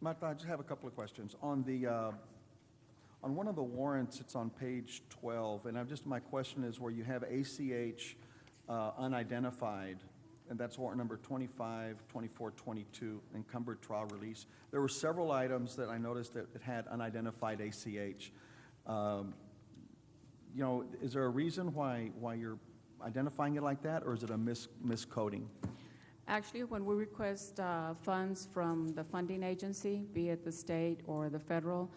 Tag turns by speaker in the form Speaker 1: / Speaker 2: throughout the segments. Speaker 1: Matt, I just have a couple of questions. On the, uh, on one of the warrants, it's on page 12, and I'm just, my question is where you have ACH uh, unidentified, and that's warrant number 25, 24, 22, encumbered trial release. There were several items that I noticed that it had unidentified ACH. Um, You know, is there a reason why, why you're identifying it like that, or is it a mis miscoding?
Speaker 2: Actually, when we request uh, funds from the funding agency, be it the state or the federal,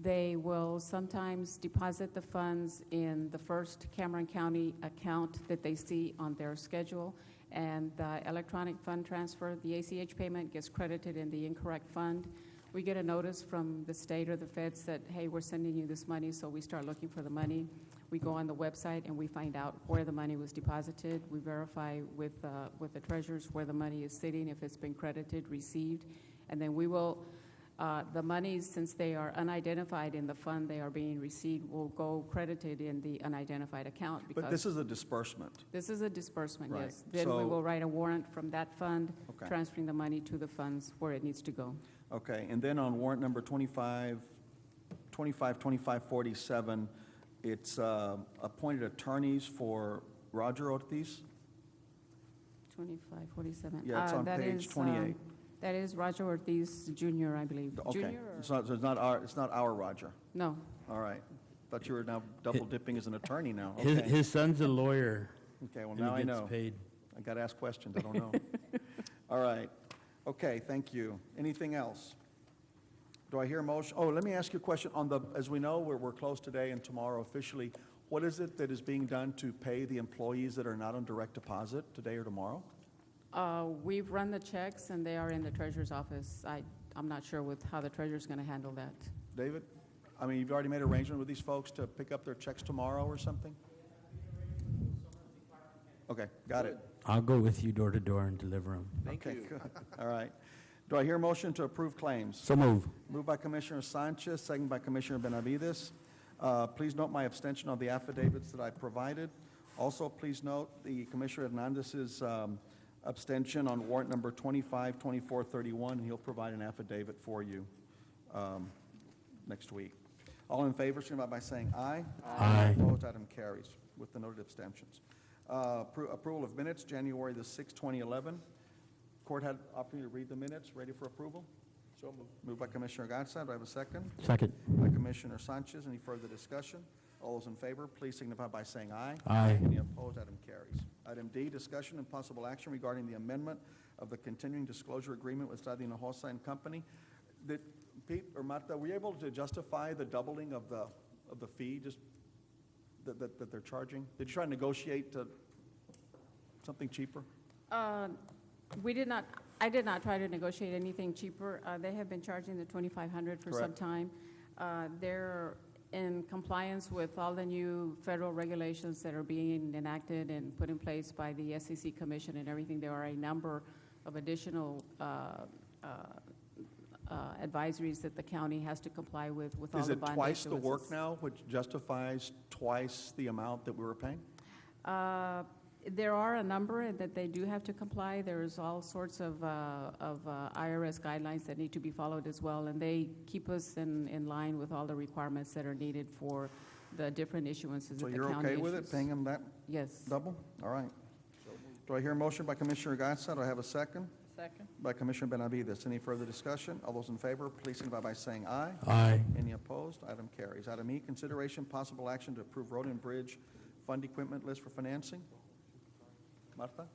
Speaker 2: they will sometimes deposit the funds in the first Cameron County account that they see on their schedule, and the electronic fund transfer, the ACH payment gets credited in the incorrect fund. We get a notice from the state or the feds that, hey, we're sending you this money, so we start looking for the money. We go on the website and we find out where the money was deposited. We verify with, uh, with the treasurers where the money is sitting, if it's been credited, received. And then we will, uh, the monies, since they are unidentified in the fund they are being received, will go credited in the unidentified account
Speaker 1: But this
Speaker 2: because
Speaker 1: is a disbursement.
Speaker 2: this is a disbursement,
Speaker 1: Right.
Speaker 2: yes. Then we
Speaker 1: So-
Speaker 2: will write a warrant from that fund,
Speaker 1: Okay.
Speaker 2: transferring the money to the funds where it needs to go.
Speaker 1: Okay, and then on warrant number 25, 25, 2547, it's uh, appointed attorneys for Roger Ortiz?
Speaker 2: 25, 47.
Speaker 1: Yeah, it's
Speaker 2: Uh,
Speaker 1: on
Speaker 2: that
Speaker 1: page
Speaker 2: is, um,
Speaker 1: 28.
Speaker 2: That is Roger Ortiz Jr., I believe.
Speaker 1: Okay,
Speaker 2: Junior or-
Speaker 1: so so it's not our, it's not our Roger,
Speaker 2: No,
Speaker 1: all right. Thought you were now double dipping as an attorney now,
Speaker 3: His,
Speaker 1: okay.
Speaker 3: his son's a lawyer.
Speaker 1: Okay, well,
Speaker 3: and he
Speaker 1: now I
Speaker 3: gets
Speaker 1: know.
Speaker 3: paid.
Speaker 1: I gotta ask questions, I don't know. All right, okay, thank you. Anything else? Do I hear a motion? Oh, let me ask you a question on the, as we know, we're, we're closed today and tomorrow officially. What is it that is being done to pay the employees that are not on direct deposit today or tomorrow?
Speaker 2: Uh, We've run the checks, and they are in the treasurer's office. I, I'm not sure with how the treasurer's going to handle that.
Speaker 1: David, I mean, you've already made arrangement with these folks to pick up their checks tomorrow or something? Okay, got it.
Speaker 3: I'll go with you door to door and deliver them.
Speaker 4: Thank
Speaker 1: Okay,
Speaker 4: you.
Speaker 1: good. All right. Do I hear a motion to approve claims?
Speaker 3: So move.
Speaker 1: Moved by Commissioner Sanchez, second by Commissioner Benavides. Uh, Please note my abstention on the affidavits that I provided. Also, please note the Commissioner Hernandez's um, abstention on warrant number 25, 24, 31. He'll provide an affidavit for you um, next week. All in favor, signify by saying aye.
Speaker 3: Aye.
Speaker 1: Opposed, item carries with the noted abstentions. Uh, appro- Approval of minutes, January the 6th, 2011. Court had opportunity to read the minutes. Ready for approval? So moved. Moved by Commissioner Gatsa. Do I have a second?
Speaker 3: Second.
Speaker 1: By Commissioner Sanchez. Any further discussion? All those in favor, please signify by saying aye.
Speaker 3: Aye.
Speaker 1: Any opposed, item carries. Item D, discussion and possible action regarding the amendment of the continuing disclosure agreement with Stadi Hinojosa and Company. Did Pete or Marta, were you able to justify the doubling of the, of the fee just that, that, that they're charging? Did you try to negotiate uh, something cheaper?
Speaker 2: Uh, We did not, I did not try to negotiate anything cheaper. Uh, They have been charging the 2,500 for some
Speaker 1: Correct.
Speaker 2: time. Uh, They're in compliance with all the new federal regulations that are being enacted and put in place by the SEC Commission and everything. There are a number of additional uh, uh, uh, advisories that the county has to comply with, with all
Speaker 1: Is
Speaker 2: the
Speaker 1: it
Speaker 2: bond
Speaker 1: twice the
Speaker 2: issuances.
Speaker 1: work now, which justifies twice the amount that we were paying?
Speaker 2: Uh, There are a number that they do have to comply. There's all sorts of, uh, of uh, IRS guidelines that need to be followed as well, and they keep us in, in line with all the requirements that are needed for the different issuances
Speaker 1: So
Speaker 2: that the county
Speaker 1: you're okay with it,
Speaker 2: issues.
Speaker 1: paying them that
Speaker 2: Yes.
Speaker 1: double? All right. Do I hear a motion by Commissioner Gatsa? Do I have a second?
Speaker 4: Second?
Speaker 1: By Commissioner Benavides. Any further discussion? All those in favor, please signify by saying aye.
Speaker 3: Aye.
Speaker 1: Any opposed? Item carries. Item E, consideration possible action to approve road and bridge fund equipment list for financing. Martha?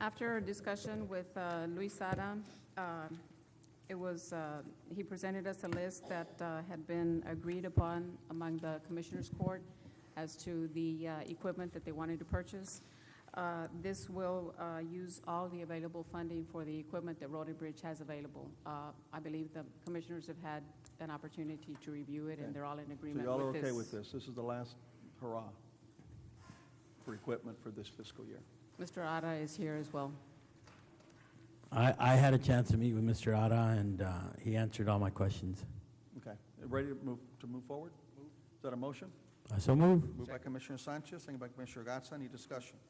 Speaker 2: After a discussion with uh, Luis Sada, um, it was, uh, he presented us a list that uh, had been agreed upon among the Commissioners Court as to the uh, equipment that they wanted to purchase. Uh, This will uh, use all the available funding for the equipment that Roden Bridge has available. Uh, I believe the Commissioners have had an opportunity to review it,
Speaker 1: Okay.
Speaker 2: and they're all in
Speaker 1: So
Speaker 2: agreement
Speaker 1: y'all are
Speaker 2: with this.
Speaker 1: okay with this? This is the last hurrah for equipment for this fiscal year.
Speaker 2: Mr. Ada is here as well.
Speaker 3: I, I had a chance to meet with Mr. Ada, and uh, he answered all my questions.
Speaker 1: Okay. Ready to move, to move forward? Is that a motion?
Speaker 3: Uh, So move.
Speaker 1: Moved by Commissioner Sanchez, second by Commissioner Gatsa. Any discussion?